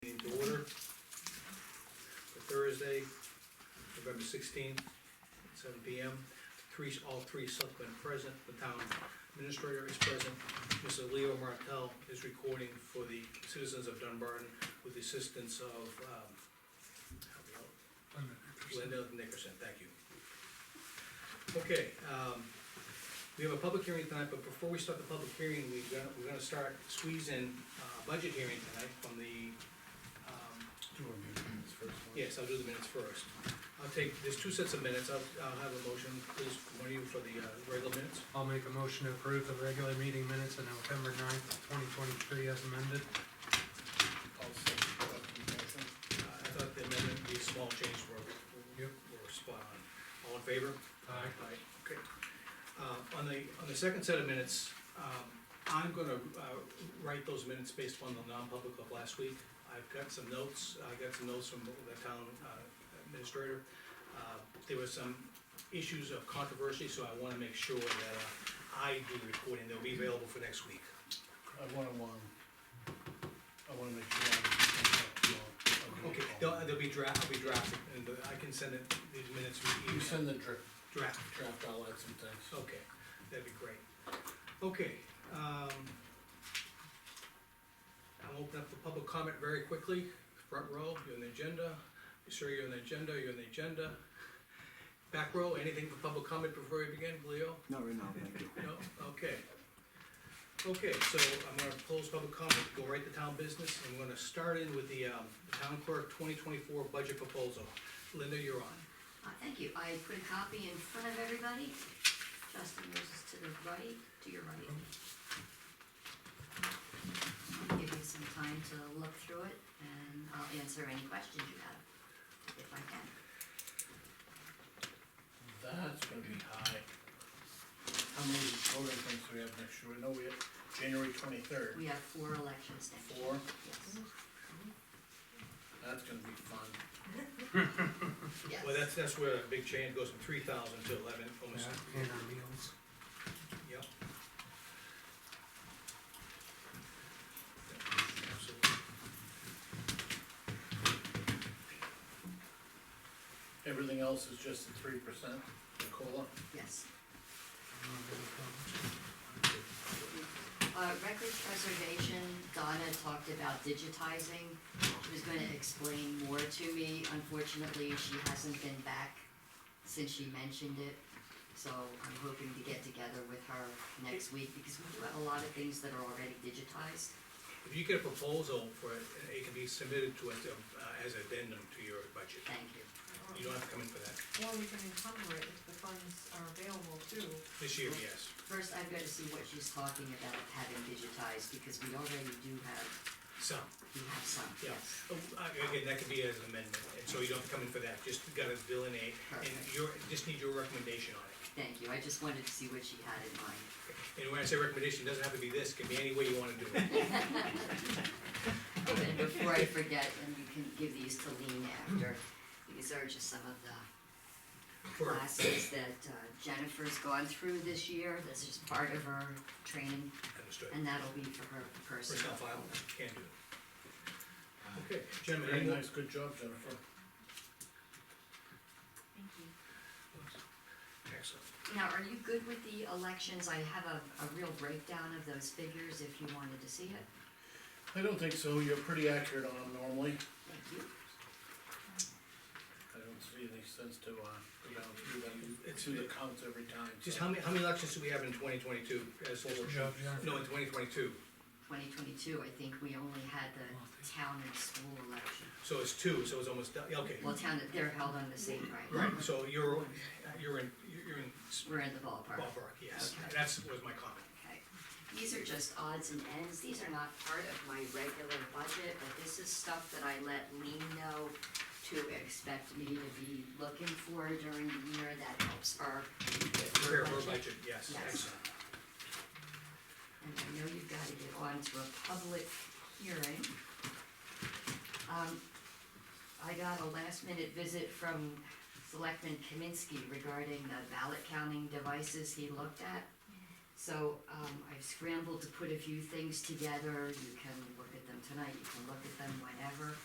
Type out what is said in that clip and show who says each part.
Speaker 1: Thursday, November sixteenth, seven P M. Three, all three selectmen are present, the town administrator is present, Mr. Leo Martell is recording for the citizens of Dunbarton with the assistance of, um, help me out, Linda Nickerson, thank you. Okay, um, we have a public hearing tonight, but before we start the public hearing, we're gonna, we're gonna start squeezing, uh, budget hearing tonight from the, um, yes, I'll do the minutes first. I'll take, there's two sets of minutes, I'll, I'll have a motion, please, one of you for the, uh, regular minutes.
Speaker 2: I'll make a motion to approve the regular meeting minutes on November 9th, twenty twenty-three as amended.
Speaker 1: Uh, I thought the amendment, the small change were,
Speaker 2: Yep.
Speaker 1: were spot on. All in favor?
Speaker 2: Aye.
Speaker 1: Okay. Uh, on the, on the second set of minutes, um, I'm gonna, uh, write those minutes based on the non-public of last week. I've got some notes, I got some notes from the town uh, administrator. Uh, There were some issues of controversy, so I wanna make sure that uh, I do the recording, they'll be available for next week.
Speaker 3: I wanna, um, I wanna make sure. I-
Speaker 1: Okay, they'll, they'll be draft, I'll be drafted, and I can send it, these minutes, we,
Speaker 3: You send the draft,
Speaker 1: draft,
Speaker 3: draft, I'll add some things.
Speaker 1: Okay, that'd be great. Okay, um. I'll open up the public comment very quickly, front row, you're on the agenda, sir, you're on the agenda, you're on the agenda. Back row, anything for public comment before we begin, Leo?
Speaker 4: Not right now, thank you.
Speaker 1: No, okay. Okay, so I'm gonna close public comment, go right to town business, and we're gonna start in with the, um, town clerk twenty twenty-four budget proposal. Linda, you're on.
Speaker 5: Uh, thank you, I put a copy in front of everybody. Justin, yours is to the right, to your right. I'll give you some time to look through it, and I'll answer any questions you have, if I can.
Speaker 3: That's gonna be high. How many voting things do we have next year? We know we have January twenty-third,
Speaker 5: We have four elections next year.
Speaker 3: four,
Speaker 5: Yes.
Speaker 3: that's gonna be fun.
Speaker 5: Yes.
Speaker 1: Well, that's, that's where a big change goes from three thousand to eleven, almost
Speaker 2: And our meals.
Speaker 1: Yep. Absolutely.
Speaker 3: Everything else is just a three percent, the COLA.
Speaker 5: Yes. Uh, record preservation, Donna talked about digitizing, she was gonna explain more to me, unfortunately, she hasn't been back since she mentioned it, so I'm hoping to get together with her next week, because we do have a lot of things that are already digitized.
Speaker 1: If you get a proposal for it, it can be submitted to us uh, as addendum to your budget.
Speaker 5: Thank you,
Speaker 1: You don't have to come in for that.
Speaker 6: Or we can encumber it if the funds are available too.
Speaker 1: This year, yes.
Speaker 5: first I've gotta see what she's talking about having digitized, because we already do have,
Speaker 1: Some,
Speaker 5: we have some,
Speaker 1: yeah.
Speaker 5: yes,
Speaker 1: Uh, Again, that could be as an amendment, and so you don't have to come in for that. Just gotta delineate, and
Speaker 5: Perfect.
Speaker 1: your, just need your recommendation on it.
Speaker 5: thank you, I just wanted to see what she had in mind.
Speaker 1: And when I say recommendation, it doesn't have to be this, it can be any way you wanna do it.
Speaker 5: And then before I forget, and you can give these to Lean after, these are just some of the
Speaker 1: For-
Speaker 5: classes that uh, Jennifer's gone through this year, this is part of her training,
Speaker 1: Understood.
Speaker 5: and that'll be for her personal.
Speaker 1: Personnel file, can do. Okay, gentlemen,
Speaker 3: Uh, Very
Speaker 1: any more?
Speaker 3: nice, good job, Jennifer.
Speaker 5: Thank you.
Speaker 1: Excellent.
Speaker 5: Now, are you good with the elections? I have a, a real breakdown of those figures if you wanted to see it.
Speaker 3: I don't think so, you're pretty accurate on them normally.
Speaker 5: Thank you.
Speaker 3: I don't see any sense to, uh, go down through them,
Speaker 1: It's-
Speaker 3: through the counts every time.
Speaker 1: Just
Speaker 3: so.
Speaker 1: how many, how many elections do we have in twenty twenty-two as
Speaker 2: Good
Speaker 1: local?
Speaker 2: job, Jennifer.
Speaker 1: No, in twenty twenty-two,
Speaker 5: Twenty twenty-two, I think we only had the town and school election.
Speaker 1: so it's two, so it's almost, done. Yeah, okay.
Speaker 5: Well, town, they're held on the same, right?
Speaker 1: Right, so you're, you're in, you're in
Speaker 5: We're in the ballpark.
Speaker 1: ballpark, yes, that's, was my comment.
Speaker 5: Okay, these are just odds and ends, these are not part of my regular budget, but this is stuff that I let Lean know to expect me to be looking for during the year, that helps her. with
Speaker 1: Prepare for budget, yes,
Speaker 5: Yes.
Speaker 1: excellent.
Speaker 5: And I know you've gotta get on to a public hearing. Um, I got a last minute visit from Selectman Kaminsky regarding the ballot counting devices he looked at. So, um, I've scrambled to put a few things together, you can look at them tonight, you can look at them whenever.